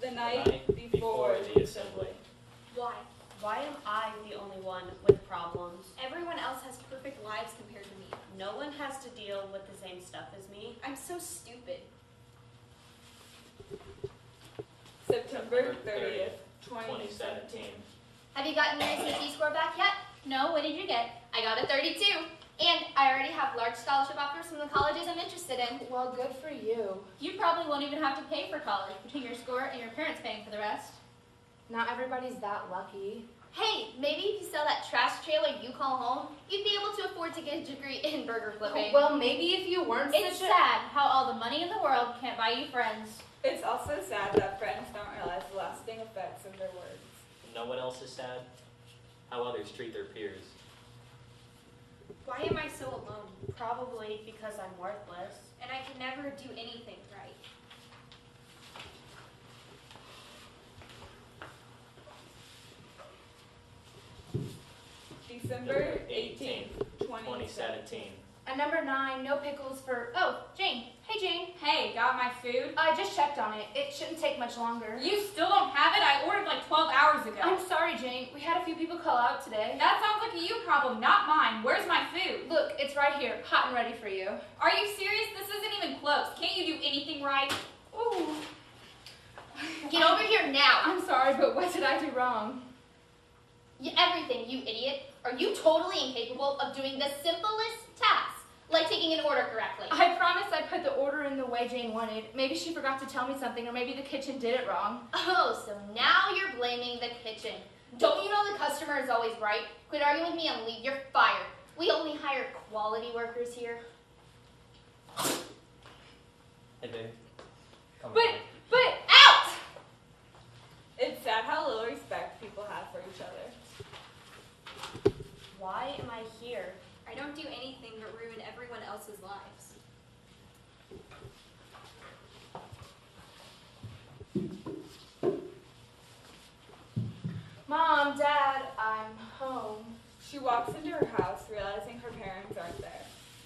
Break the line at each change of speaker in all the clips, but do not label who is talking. The night before the assembly.
Why? Why am I the only one with problems? Everyone else has perfect lives compared to me. No one has to deal with the same stuff as me. I'm so stupid.
September thirtieth, twenty seventeen.
Have you gotten your ACT score back yet? No, what did you get? I got a 32. And I already have large scholarship offers from the colleges I'm interested in.
Well, good for you.
You probably won't even have to pay for college between your score and your parents paying for the rest.
Not everybody's that lucky.
Hey, maybe if you sell that trash trailer you call home, you'd be able to afford to get a degree in burger flipping.
Well, maybe if you weren't
Oh, it's
such
sad how all the money in the world can't buy you friends.
It's also sad that friends don't realize the lasting effects of their words.
No one else is sad. How others treat their peers.
Why am I so alone? Probably because I'm worthless.
And I can never do anything right.
December eighteenth, twenty seventeen.
a. At number nine, no pickles for. Oh, Jane. Hey, Jane.
Hey, got my food?
I just checked on it. It shouldn't take much longer.
You still don't have it? I ordered like 12 hours ago.
I'm sorry, Jane. We had a few people call out today.
That sounds like a you problem, not mine. Where's my food?
Look, it's right here, hot and ready for you.
Are you serious? This isn't even close. Can't you do anything right?
Ooh.
Get over here now.
I'm sorry, but what did I do wrong?
You, everything, you idiot. Are you totally incapable of doing the simplest task, like taking an order correctly?
I promised I put the order in the way Jane wanted. Maybe she forgot to tell me something, or maybe the kitchen did it wrong.
Oh, so now you're blaming the kitchen. Don't you know the customer is always right? Quit arguing with me and leave. You're fired. We only hire quality workers here.
Hey, babe. Come
But-
on.
But
Out!
It's sad how little respect people have for each other.
Why am I here?
I don't do anything but ruin everyone else's lives.
Mom, Dad, I'm home.
She walks into her house realizing her parents aren't there.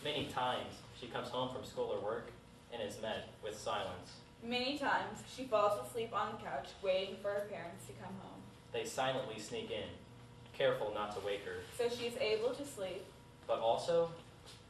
Many times she comes home from school or work and is met with silence.
Many times, she falls asleep on the couch waiting for her parents to come home.
They silently sneak in, careful not to wake her,
So she is able to sleep.
but also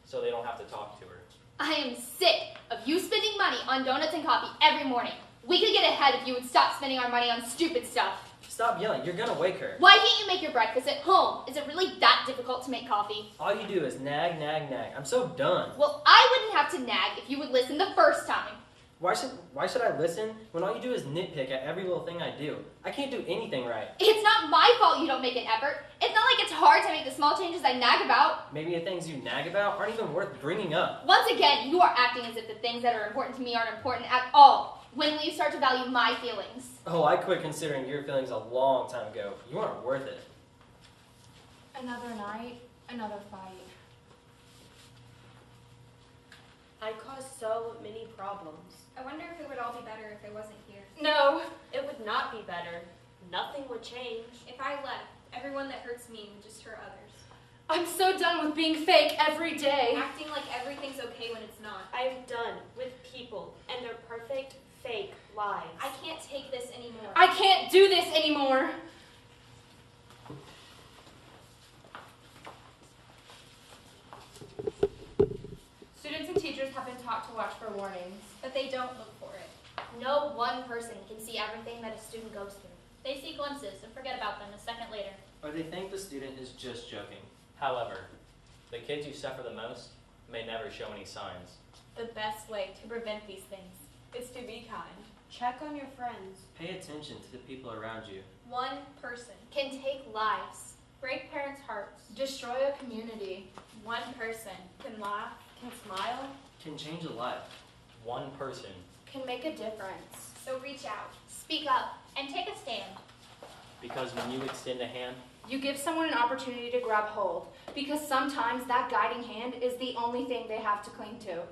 so they don't have to talk to her.
I am sick of you spending money on donuts and coffee every morning. We could get ahead if you would stop spending our money on stupid stuff.
Stop yelling, you're gonna wake her.
Why can't you make your breakfast at home? Is it really that difficult to make coffee?
All you do is nag, nag, nag. I'm so done.
Well, I wouldn't have to nag if you would listen the first time.
Why should why should I listen when all you do is nitpick at every little thing I do? I can't do anything right.
It's not my fault you don't make an effort. It's not like it's hard to make the small changes I nag about.
Maybe the things you nag about aren't even worth bringing up.
Once again, you are acting as if the things that are important to me aren't important at all. When will you start to value my feelings?
Oh, I quit considering your feelings a long time ago. You aren't worth it.
Another night, another fight.
I cause so many problems.
I wonder if it would all be better if I wasn't here.
No.
It would not be better. Nothing would change.
If I left, everyone that hurts me would just hurt others.
I'm so done with being fake every day.
Acting like everything's okay when it's not.
I'm done with people and their perfect fake lives.
I can't take this anymore.
I can't do this anymore. Students and teachers have been taught to watch for warnings.
But they don't look for it.
No one person can see everything that a student goes through. They see glimpses and forget about them a second later.
Or they think the student is just joking.
However, the kids who suffer the most may never show any signs.
The best way to prevent these things is to be kind.
Check on your friends.
Pay attention to the people around you.
One person.
Can take lives.
Break parents' hearts.
Destroy a community.
One person can laugh, can smile.
Can change a life.
One person
Can make a difference.
So reach out.
Speak up and take a stand.
Because when you extend a hand,
You give someone an opportunity to grab hold because sometimes that guiding hand is the only thing they have to cling to.